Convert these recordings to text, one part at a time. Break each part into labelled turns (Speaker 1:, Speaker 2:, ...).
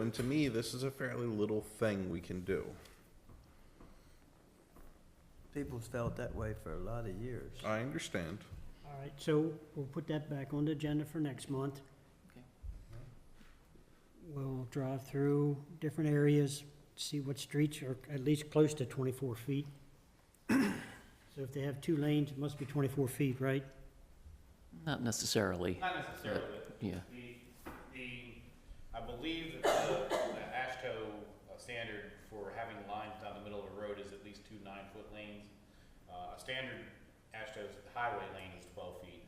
Speaker 1: And to me, this is a fairly little thing we can do.
Speaker 2: People's felt that way for a lot of years.
Speaker 1: I understand.
Speaker 3: All right, so we'll put that back on the agenda for next month.
Speaker 4: Okay.
Speaker 3: We'll drive through different areas, see what streets are at least close to twenty-four feet. So if they have two lanes, it must be twenty-four feet, right?
Speaker 4: Not necessarily.
Speaker 5: Not necessarily.
Speaker 4: Yeah,
Speaker 5: The, the, I believe that the, the ASHTO uh, standard for having lines down the middle of a road is at least two nine-foot lanes. Uh, a standard ASHTO highway lane is twelve feet,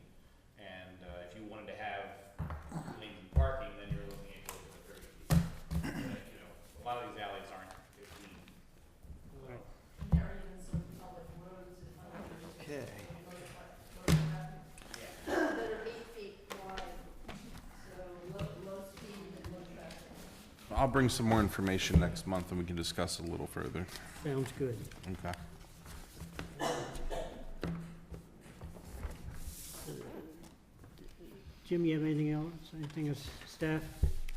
Speaker 5: and, uh, if you wanted to have lanes and parking, then you're looking at closer to thirty feet. But, You know, a lot of these alleys aren't fifteen.
Speaker 2: Okay.
Speaker 6: that are eight feet wide, so low, low speed and low traffic.
Speaker 1: I'll bring some more information next month and we can discuss a little further.
Speaker 3: Sounds good.
Speaker 1: Okay.
Speaker 3: Jim, you have anything else? Anything as staff?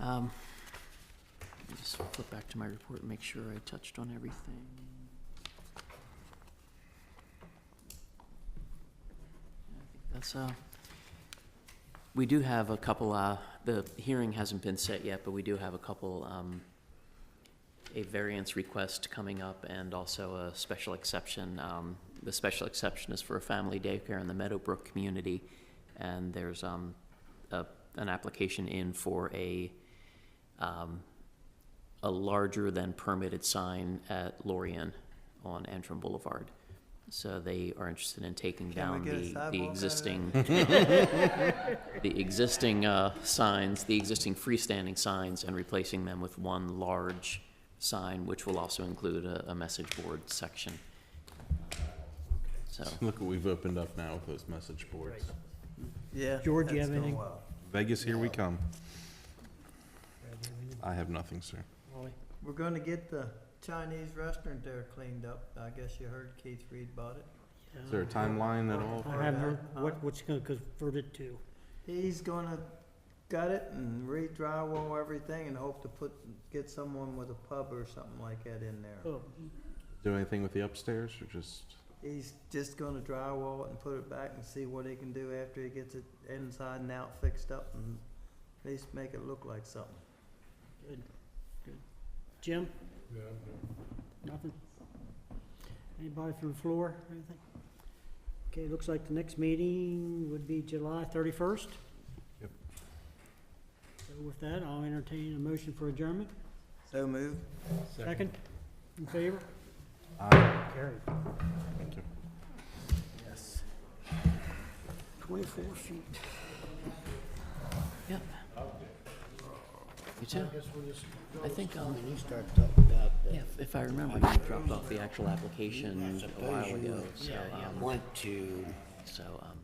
Speaker 4: um, let me just flip back to my report and make sure I touched on everything. I think That's, uh, we do have a couple, uh, the hearing hasn't been set yet, but we do have a couple, um, a variance request coming up and also a special exception. Um, the special exception is for a family daycare in the Meadowbrook community. And there's, um, a, an application in for a, um, a larger than permitted sign at Lorien on Antrim Boulevard. So they are interested in taking
Speaker 2: Can
Speaker 4: down
Speaker 2: we get a
Speaker 4: the,
Speaker 2: sidewalk out
Speaker 4: the
Speaker 2: of
Speaker 4: existing, the existing, uh, signs, the existing freestanding signs and replacing them with one large sign, which will also include a, a message board section. So,
Speaker 1: Look what we've opened up now with those message boards.
Speaker 2: Yeah.
Speaker 3: George, you
Speaker 2: that's
Speaker 3: have
Speaker 2: going
Speaker 3: anything?
Speaker 2: well.
Speaker 1: Vegas, here we come. I have nothing, sir.
Speaker 3: Wally?
Speaker 2: We're gonna get the Chinese restaurant there cleaned up. I guess you heard Keith Reed bought it.
Speaker 1: Is there a timeline
Speaker 5: Uh-huh.
Speaker 1: at all?
Speaker 3: I haven't heard what, what's gonna convert it to.
Speaker 2: He's gonna gut it and re-drywall everything and hope to put, get someone with a pub or something like that in there.
Speaker 3: Oh,
Speaker 1: Do anything with the upstairs or just?
Speaker 2: He's just gonna drywall it and put it back and see what he can do after he gets it inside and out fixed up and at least make it look like something.
Speaker 3: Good, good. Jim? Nothing? Anybody from the floor, anything? Okay, looks like the next meeting would be July thirty-first.
Speaker 1: Yep.
Speaker 3: So with that, I'll entertain a motion for adjournment.
Speaker 2: So move.
Speaker 3: Second? In favor?
Speaker 1: Aye.
Speaker 3: Carried.
Speaker 1: Thank you.
Speaker 2: Yes.
Speaker 3: Twenty-four feet.
Speaker 4: yeah. You too. I think, um,
Speaker 7: When you start talking about
Speaker 4: yeah, if I remember, you dropped off the actual application a while ago, so,
Speaker 7: the
Speaker 4: um,
Speaker 7: want to
Speaker 4: so, um,